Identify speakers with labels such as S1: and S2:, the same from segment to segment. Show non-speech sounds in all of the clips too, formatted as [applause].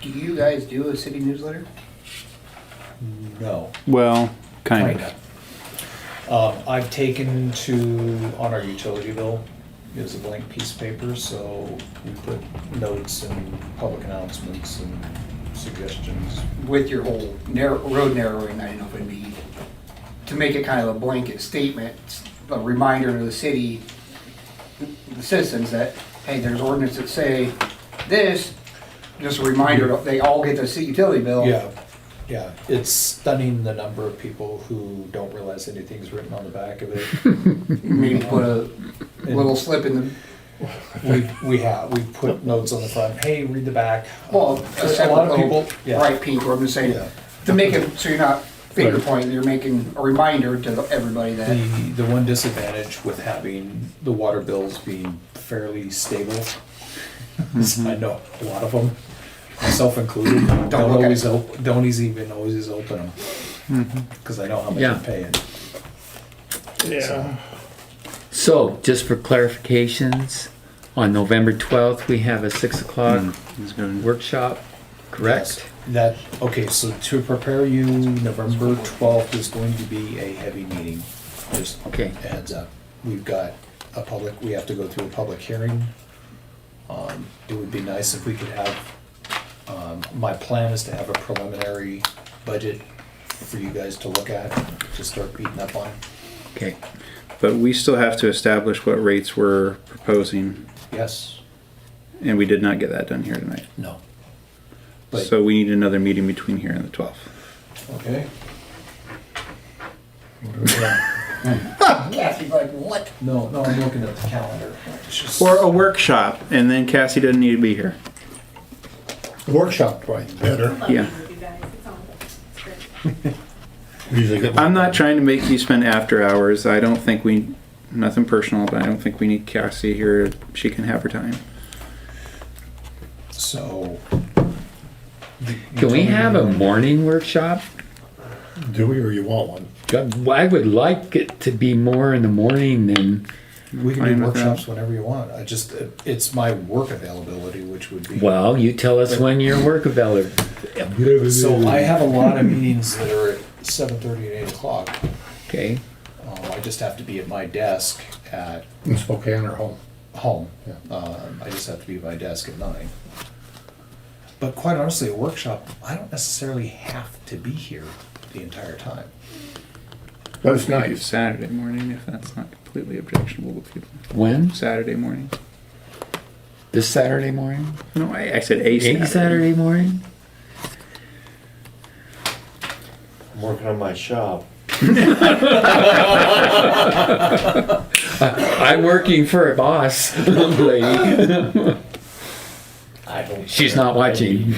S1: Do you guys do a city newsletter?
S2: No.
S3: Well, kind of.
S2: Um, I've taken to, on our utility bill, it was a blank piece of paper, so we put notes and public announcements and suggestions.
S1: With your whole narrow, road narrowing, I do not know if it'd be, to make it kind of a blanket statement, a reminder to the city, the citizens that, hey, there's ordinance that say this, just a reminder, they all get the city utility bill.
S2: Yeah, yeah, it's stunning the number of people who don't realize anything's written on the back of it.
S1: Maybe put a little slip in the,
S2: We, we have, we put notes on the front, hey, read the back.
S1: well, oh,
S2: A
S1: a separate
S2: lot of
S1: little
S2: people, yeah,
S1: bright pink, or I'm just saying,
S2: yeah.
S1: to make it, so you're not finger
S3: Right.
S1: pointing, you're making a reminder to everybody that.
S2: The, the one disadvantage with having the water bills being fairly stable, is
S1: Mm-hmm.
S2: I know a lot of them, myself included, don't
S1: look at
S2: always,
S1: it.
S2: op- don't eas- even always open them.
S1: Mm-hmm.
S2: Cause I know how much
S4: Yeah.
S2: I'm paying.
S5: Yeah.
S4: So, just for clarifications, on November 12th, we have a 6 o'clock
S2: Mm,
S3: It's good.
S4: workshop, correct?
S2: That, okay, so to prepare you, November twelfth is going to be a heavy meeting, just a
S4: Okay.
S2: heads up. We've got a public, we have to go through a public hearing. Um, it would be nice if we could have, um, my plan is to have a preliminary budget for you guys to look at, to start beating up on.
S4: Okay,
S3: But we still have to establish what rates we're proposing,
S2: Yes,
S3: and we did not get that done here tonight.
S2: no. But,
S3: So we need another meeting between here and the twelfth.
S2: okay,
S1: Kathy's like, what?
S2: no, no, I'm looking at the calendar. It's just-
S3: Or a workshop, and then Cassie doesn't need to be here.
S6: Workshop, right, better.
S3: Yeah.
S6: Usually get-
S3: I'm not trying to make you spend after hours. I don't think we, nothing personal, but I don't think we need Cassie here. She can have her time.
S2: So.
S4: can we have a morning workshop?
S6: Do we, or you want one?
S4: God, I would like it to be more in the morning than,
S2: We can
S3: Fine
S2: do
S3: with that.
S2: workshops whenever you want. I just, it's my work availability, which would be.
S4: well, you tell us when your work available.
S2: So I have a lot of meetings that are at seven thirty and eight o'clock.
S4: Okay,
S2: Um, I just have to be at my desk at
S6: In Spokane or home?
S2: home.
S6: Yeah.
S2: Um, I just have to be at my desk at nine. But quite honestly, a workshop, I don't necessarily have to be here the entire time.
S6: That's
S3: Do
S6: nice.
S3: Saturday morning, if that's not completely objectionable to people.
S4: when?
S3: Saturday morning.
S4: This Saturday morning?
S3: No, I, I said a Saturday.
S4: Eight Saturday morning?
S7: I'm working on my shop.
S4: I'm working for a boss, [laughs] lady.
S2: I don't.
S4: She's
S2: [laughs]
S4: not watching.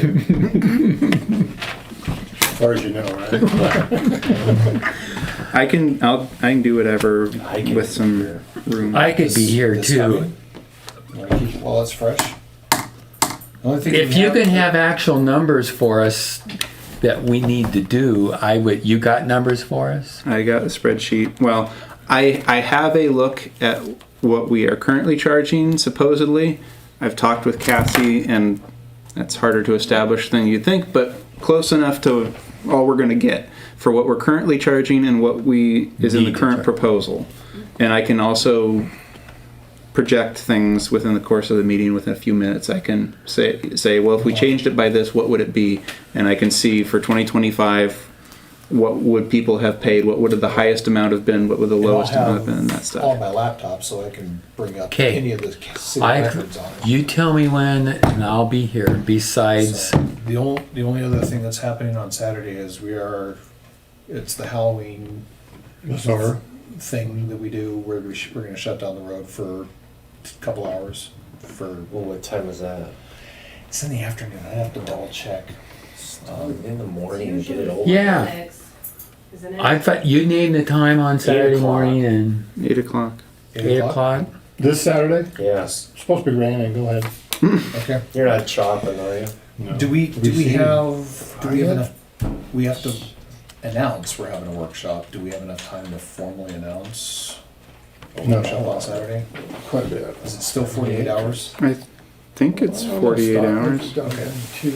S6: As far as you know, right?
S3: I can. I'll. I can do whatever
S7: I can
S3: with
S7: be
S3: some
S7: here.
S3: room.
S4: I could be here
S2: This
S4: too.
S2: coming- wanna keep- While it's fresh. Only thing
S4: If
S2: we
S4: you can have actual numbers for us that we need to do, I would, you got numbers for us?
S3: I got a spreadsheet. Well, I I have a look at what we are currently charging supposedly. I've talked with Cassie, and that's harder to establish than you'd think, but close enough to all we're going to get for what we're currently charging and what we is in
S4: Need
S3: the
S4: to
S3: current
S4: charge.
S3: proposal. And I can also project things within the course of the meeting within a few minutes i can say say well if we changed it by this what would it be and i can see for 2025 what would people have paid what would the highest amount have been what would the
S2: And I'll
S3: lowest amount have
S2: have
S3: been and that
S2: On
S3: stuff
S2: my laptop, so I can bring up
S4: 'Kay.
S2: any of the city
S4: I,
S2: records on it.
S4: you tell me when and I'll be here. Besides,
S2: So, The only, the only other thing that's happening on Saturday is we are, it's the Halloween
S6: The summer,
S2: thing that we do where we sh- we're gonna shut down the road for a couple hours for,
S7: Well, what time is that?
S2: it's in the afternoon, I have to double check. Um,
S7: Oh, In the morning, get it over.
S4: Yeah. I thought, you named the time on Saturday
S7: o'clock.
S4: morning and
S3: 8 o'clock
S4: eight o'clock?
S6: this Saturday,
S7: Yes.
S6: It's supposed to be raining, go ahead.
S2: Okay.
S7: You're not chopping, are you?
S6: No.
S2: Do we, do we
S6: see-
S2: have, do we have
S6: Are
S2: enough, we have to announce we're having a workshop, do we have enough time to formally announce? a
S6: No.
S2: Workshop on Saturday,
S6: Quite a bit.
S2: is it still forty-eight hours?
S3: i think it's 48
S6: Stop.
S3: hours
S6: Okay.